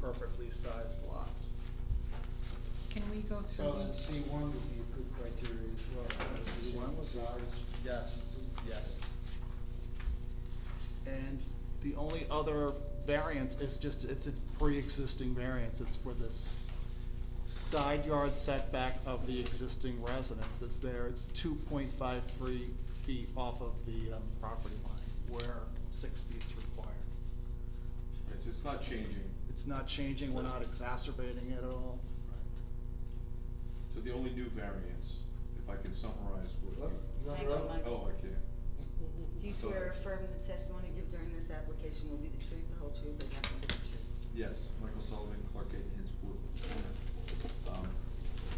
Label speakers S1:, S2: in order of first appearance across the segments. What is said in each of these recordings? S1: perfectly sized lots.
S2: Can we go
S3: So
S2: through
S3: then
S2: each?
S3: C one would be a good criteria as well.
S1: C1 was
S3: Size.
S1: Yes, yes. And the only other variance is just, it's a pre-existing variance, it's for this side yard setback of the existing residence that's there, it's two point five three feet off of the um, property line, where six feet's required.
S4: It's, it's not changing.
S1: It's not changing, we're not exacerbating it at all.
S4: So the only new variance, if I can summarize
S3: Look,
S4: what you.
S3: you want
S5: Hang
S3: to
S5: on,
S3: roll?
S5: Mike.
S4: Oh, I can.
S5: Do you swear or affirm the testimony you give during this application will be the truth, the whole truth, and nothing but the truth?
S4: Yes, Michael Sullivan, Clark Gate, Henswood. Um,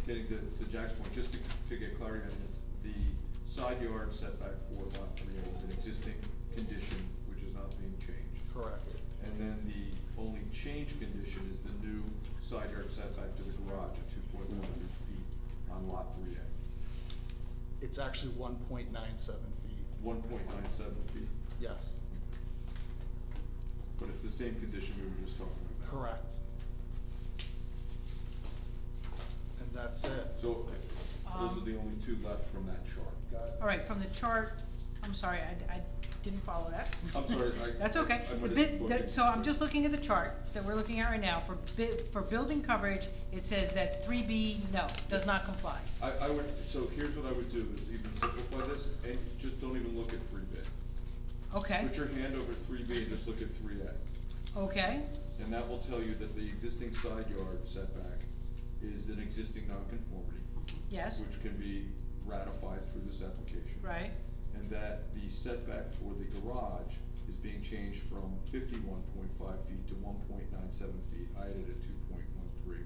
S4: Getting to, to Jack's point, just to, to get clarity on this, the side yard setback for lot three is an existing condition, which is not being changed.
S1: Correct.
S4: And then the only change condition is the new side yard setback to the garage at two point one hundred feet on lot three A.
S1: It's actually one point nine seven feet,
S4: One point nine seven feet,
S1: yes,
S4: but it's the same condition we were just talking about.
S1: correct. And that's it.
S4: So, those are
S2: Um,
S4: the only two left from that chart.
S3: Got it.
S2: All right, from the chart, I'm sorry, I, I didn't follow that.
S4: I'm sorry, I-
S2: That's okay.
S4: I
S2: The
S4: missed
S2: bit- the-
S4: booking.
S2: So I'm just looking at the chart that we're looking at right now. For bu- for building coverage, it says that three B, no, does not comply.
S4: I, I would, so here's what I would do, is even simplify this, and just don't even look at three B.
S2: Okay,
S4: Put your hand over three B and just look at three A.
S2: okay,
S4: And that will tell you that the existing side yard setback is an existing nonconformity,
S2: yes,
S4: which can be ratified through this application.
S2: right,
S4: And that the setback for the garage is being changed from fifty-one point five feet to one point nine seven feet. I added a two point one three,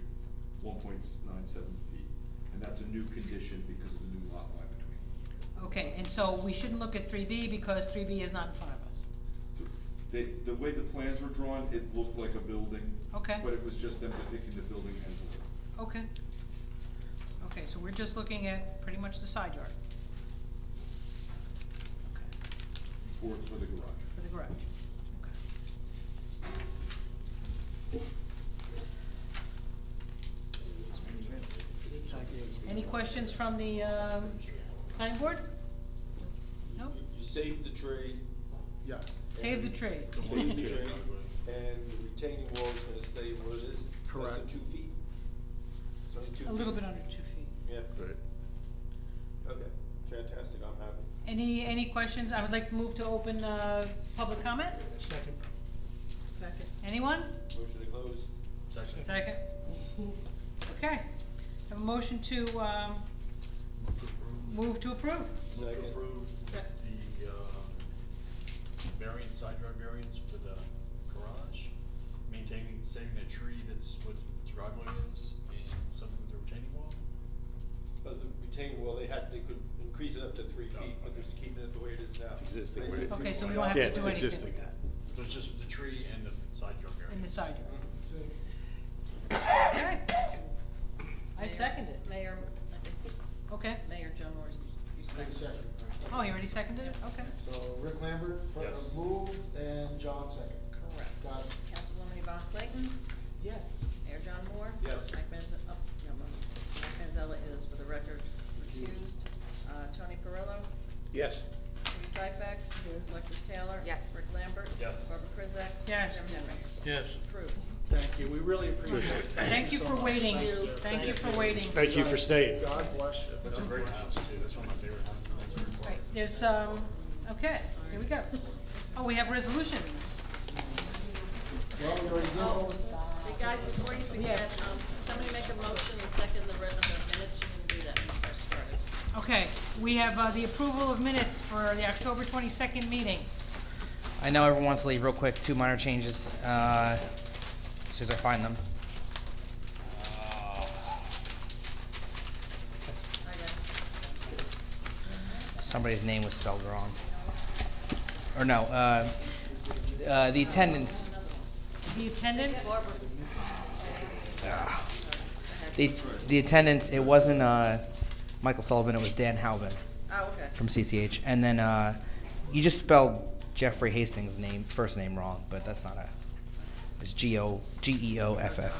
S4: one point nine seven feet. And that's a new condition because of the new lot line between. them.
S2: okay. And so we shouldn't look at three B because three B is not in front of us.
S4: They, the way the plans were drawn, it looked like a building.
S2: Okay.
S4: But it was just them depicting the building envelope.
S2: Okay. Okay, so we're just looking at pretty much the side yard. Okay.
S4: for, for the garage.
S2: For the garage, okay. Any questions from the, um, planning board? No?
S6: You save the tree.
S1: Yes.
S2: Save the
S6: and-
S2: tree.
S6: Save the tree, and the retaining wall's gonna stay where it is. Less than
S1: Correct.
S6: two feet. It's only two
S2: A little
S6: feet.
S2: bit under two feet.
S6: Yeah. Okay, fantastic, I'm happy.
S2: Any, any questions? I would like to move to open, uh, public comment.
S5: Second.
S2: Anyone?
S6: Motion to close.
S2: Second? Okay. Have a motion to, um, move to approve.
S7: Move to
S6: Second.
S7: approve the, um, variance, side yard variance for the garage, maintaining, saving the tree that's what the driveway is, and something with the retaining wall?
S6: But the retaining wall, they had, they could increase it up to three feet, but they're just keeping it the way it is now.
S8: existing,
S6: Right.
S8: where it is.
S2: Okay, so we don't have
S8: Yeah,
S2: to
S8: it's
S2: do anything
S8: existing.
S2: with that.
S7: So it's just the tree and the side yard variance?
S2: In the side yard.
S6: Mhm.
S2: Okay. I second it.
S9: Mayor, I think
S2: Okay.
S9: Mayor John Morris, you
S3: Take a
S9: seconded.
S3: second.
S2: Oh, he already seconded it? Okay.
S3: So Rick Lambert fir-
S7: Yes.
S3: moved and John second.
S9: Correct.
S3: Got it.
S9: Councilwoman Yvonne Clayton?
S3: Yes.
S9: Mayor John Moore?
S6: Yes.
S9: Mike Manzella, oh, no, no, Mike Manzella is, for the record, recused. Uh, Tony Perillo?
S8: Yes.
S9: Lee Syfax? Alexis Taylor?
S5: Yes.
S9: Rick Lambert?
S7: Yes.
S9: Barbara Krizak?
S2: Yes.
S9: Jim Henry?
S8: Yes.
S9: Approved.
S1: Thank you, we really appreciate it.
S2: Thank you
S1: so
S2: for
S1: much.
S2: waiting.
S9: Thank you.
S2: Thank you for waiting.
S8: Thank you for staying.
S1: God bless you.
S7: That's a great house too, that's one of my favorite houses.
S2: Right, there's, um, okay, here we go. Oh, we have resolutions.
S3: Well, we already
S2: Oh,
S3: know.
S9: Hey, guys, before you forget,
S2: Yeah.
S9: um, somebody make a motion and second the re- the minutes, you didn't do that when you first started.
S2: Okay, we have, uh, the approval of minutes for the October twenty-second meeting.
S10: I know everyone wants to leave real quick. Two minor changes, uh, as soon as I find them.
S9: Hi, guys.
S10: Somebody's name was spelled wrong. Or no, uh, uh, the attendance,
S2: The attendance,
S10: the, the attendance, it wasn't, uh, Michael Sullivan, it was Dan Halvin
S9: Oh, okay.
S10: from CCH. And then, uh, you just spelled Jeffrey Hastings' name, first name wrong, but that's not a, E It's G-O, G-E-O-F-F.